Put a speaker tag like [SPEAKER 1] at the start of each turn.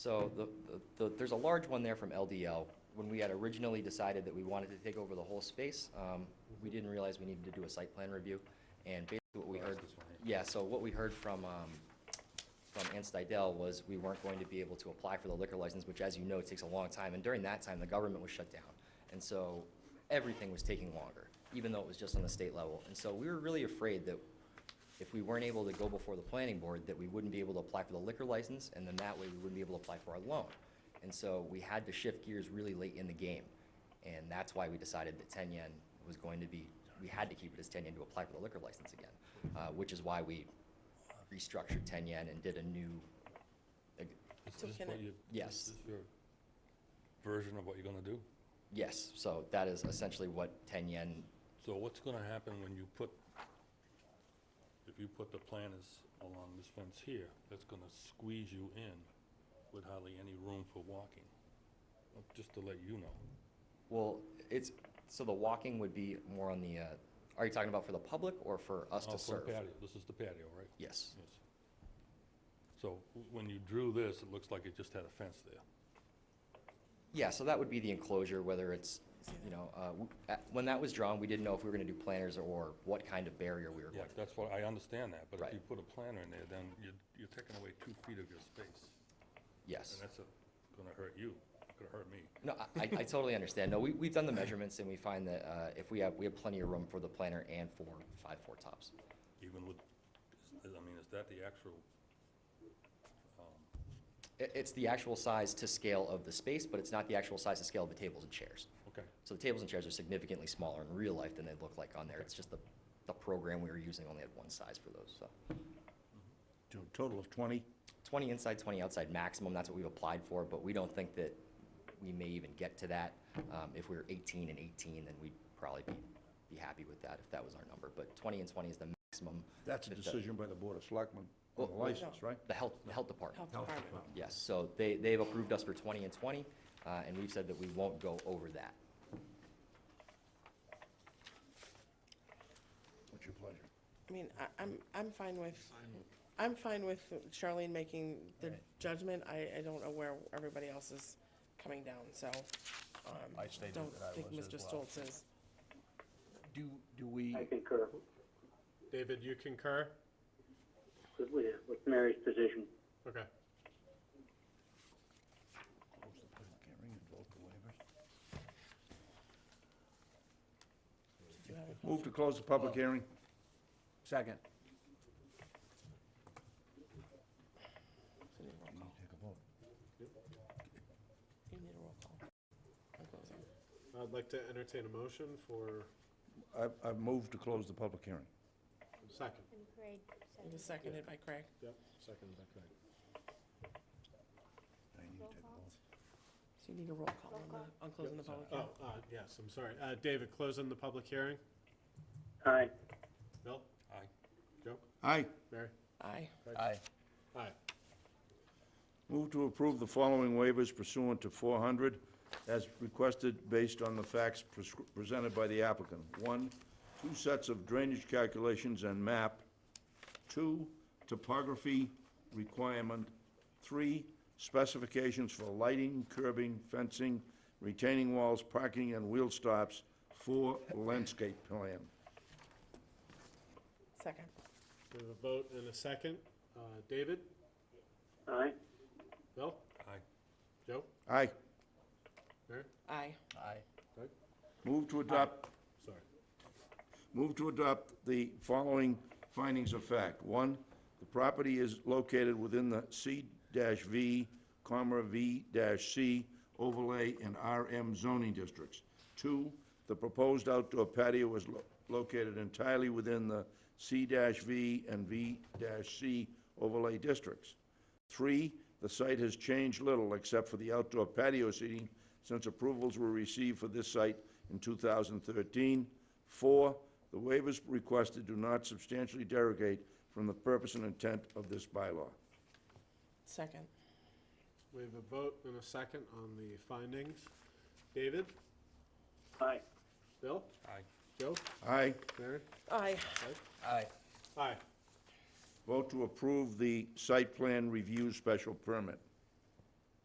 [SPEAKER 1] So the, the, the- there's a large one there from LDL. When we had originally decided that we wanted to take over the whole space, um, we didn't realize we needed to do a site plan review. And basically what we heard, yeah, so what we heard from, um, from Anstidel was we weren't going to be able to apply for the liquor license, which as you know, takes a long time. And during that time, the government was shut down. And so everything was taking longer, even though it was just on the state level. And so we were really afraid that if we weren't able to go before the planning board, that we wouldn't be able to apply for the liquor license, and then that way we wouldn't be able to apply for our loan. And so we had to shift gears really late in the game, and that's why we decided that ten yen was going to be, we had to keep it as ten yen to apply for the liquor license again, uh, which is why we restructured ten yen and did a new,
[SPEAKER 2] Is
[SPEAKER 3] So
[SPEAKER 2] this
[SPEAKER 3] can
[SPEAKER 2] what
[SPEAKER 3] I-
[SPEAKER 2] you-
[SPEAKER 1] Yes.
[SPEAKER 2] Is this your version of what you're gonna do?
[SPEAKER 1] yes, so that is essentially what ten yen,
[SPEAKER 2] So what's gonna happen when you put, if you put the planters along this fence here, that's gonna squeeze you in with hardly any room for walking? Uh, Just to let you know.
[SPEAKER 1] well, it's, so the walking would be more on the, uh, are you talking about for the public or for us
[SPEAKER 2] Oh,
[SPEAKER 1] to
[SPEAKER 2] for the
[SPEAKER 1] serve?
[SPEAKER 2] patio. This is the patio, right?
[SPEAKER 1] Yes,
[SPEAKER 2] Yes. So w- when you drew this, it looks like it just had a fence there.
[SPEAKER 1] yeah, so that would be the enclosure, whether it's you know, uh, w- at- when that was drawn, we didn't know if we were going to do planters or what kind of barrier we were
[SPEAKER 2] Yeah,
[SPEAKER 1] going to.
[SPEAKER 2] that's what, I understand that, but if
[SPEAKER 1] Right.
[SPEAKER 2] you put a planter in there, then you're, you're taking away two feet of your space.
[SPEAKER 1] Yes.
[SPEAKER 2] And that's uh, gonna hurt you, gonna hurt me.
[SPEAKER 1] No, I- I, I totally understand. No, we, we've done the measurements and we find that uh, if we have, we have plenty of room for the planter and for five four tops.
[SPEAKER 2] Even with, is- I mean, is that the actual,
[SPEAKER 1] It, it's the actual size to scale of the space, but it's not the actual size to scale of the tables and chairs.
[SPEAKER 2] okay,
[SPEAKER 1] So the tables and chairs are significantly smaller in real life than they look like on there. It's just the, the program we were using only had one size for those, so.
[SPEAKER 4] To a total of 20?
[SPEAKER 1] Twenty inside, twenty outside maximum, that's what we've applied for, but we don't think that we may even get to that. Um, if we were eighteen and eighteen, then we'd probably be, be happy with that if that was our number, but twenty and twenty is the maximum.
[SPEAKER 4] That's a
[SPEAKER 1] that the-
[SPEAKER 4] decision by the Board of Selectmen on the
[SPEAKER 1] Well,
[SPEAKER 4] license, right?
[SPEAKER 1] The health, the health department,
[SPEAKER 3] Health Department.
[SPEAKER 1] yes, so they, they've approved us for twenty and twenty, uh, and we've said that we won't go over that.
[SPEAKER 4] What's your pleasure?
[SPEAKER 3] I mean, I- I'm, I'm fine with, I'm fine with Charlene making the judgment. I, I don't know where everybody else is coming down, so. um,
[SPEAKER 5] I stated
[SPEAKER 3] don't
[SPEAKER 5] that I
[SPEAKER 3] think
[SPEAKER 5] was
[SPEAKER 3] Mr.
[SPEAKER 5] as well.
[SPEAKER 3] Stoltz is.
[SPEAKER 5] Do, do we,
[SPEAKER 6] I concur
[SPEAKER 7] David, you concur?
[SPEAKER 6] with, with Mary's position.
[SPEAKER 7] Okay.
[SPEAKER 4] Close the public hearing and vote the waivers. Move to close the
[SPEAKER 1] Oh.
[SPEAKER 4] public hearing.
[SPEAKER 5] second,
[SPEAKER 3] You need a roll call. I'm closing.
[SPEAKER 7] I'd like to entertain a motion for
[SPEAKER 4] I've, I've moved to close the public hearing.
[SPEAKER 7] second.
[SPEAKER 8] Grade seven.
[SPEAKER 3] It was seconded by Craig.
[SPEAKER 7] Yep, second, okay.
[SPEAKER 3] So you need a roll call on the, on closing the public hearing.
[SPEAKER 7] Oh, uh, yes, I'm sorry. Uh, David, closing the public hearing?
[SPEAKER 6] Aye.
[SPEAKER 7] Bill?
[SPEAKER 2] aye.
[SPEAKER 7] Joe?
[SPEAKER 4] Aye.
[SPEAKER 7] Mary?
[SPEAKER 3] Aye.
[SPEAKER 5] aye,
[SPEAKER 7] Aye.
[SPEAKER 4] Move to approve the following waivers pursuant to 400 as requested based on the facts pres- presented by the applicant. One, two sets of drainage calculations and map. Two, topography requirement. Three, specifications for lighting, curbing, fencing, retaining walls, parking, and wheel stops. Four, landscape plan.
[SPEAKER 3] Second.
[SPEAKER 7] We have a vote and a second. Uh, David?
[SPEAKER 6] Aye.
[SPEAKER 7] Bill?
[SPEAKER 2] Aye.
[SPEAKER 7] Joe?
[SPEAKER 4] Aye.
[SPEAKER 7] Mary?
[SPEAKER 3] Aye.
[SPEAKER 5] aye,
[SPEAKER 7] Doug?
[SPEAKER 4] Move to adopt
[SPEAKER 7] Sorry.
[SPEAKER 4] Move to adopt the following findings of fact. One, the property is located within the C-V, comma, V-C overlay and RM zoning districts. Two, the proposed outdoor patio is lo- located entirely within the C-V and V-C overlay districts. Three, the site has changed little except for the outdoor patio seating since approvals were received for this site in 2013. Four, the waivers requested do not substantially derogate from the purpose and intent of this bylaw.
[SPEAKER 3] Second.
[SPEAKER 7] We have a vote and a second on the findings. David?
[SPEAKER 6] Aye.
[SPEAKER 7] Bill?
[SPEAKER 2] Aye.
[SPEAKER 7] Joe?
[SPEAKER 4] Aye.
[SPEAKER 7] Mary?
[SPEAKER 3] Aye.
[SPEAKER 5] aye,
[SPEAKER 7] Aye.
[SPEAKER 4] Vote to approve the site plan review special permit.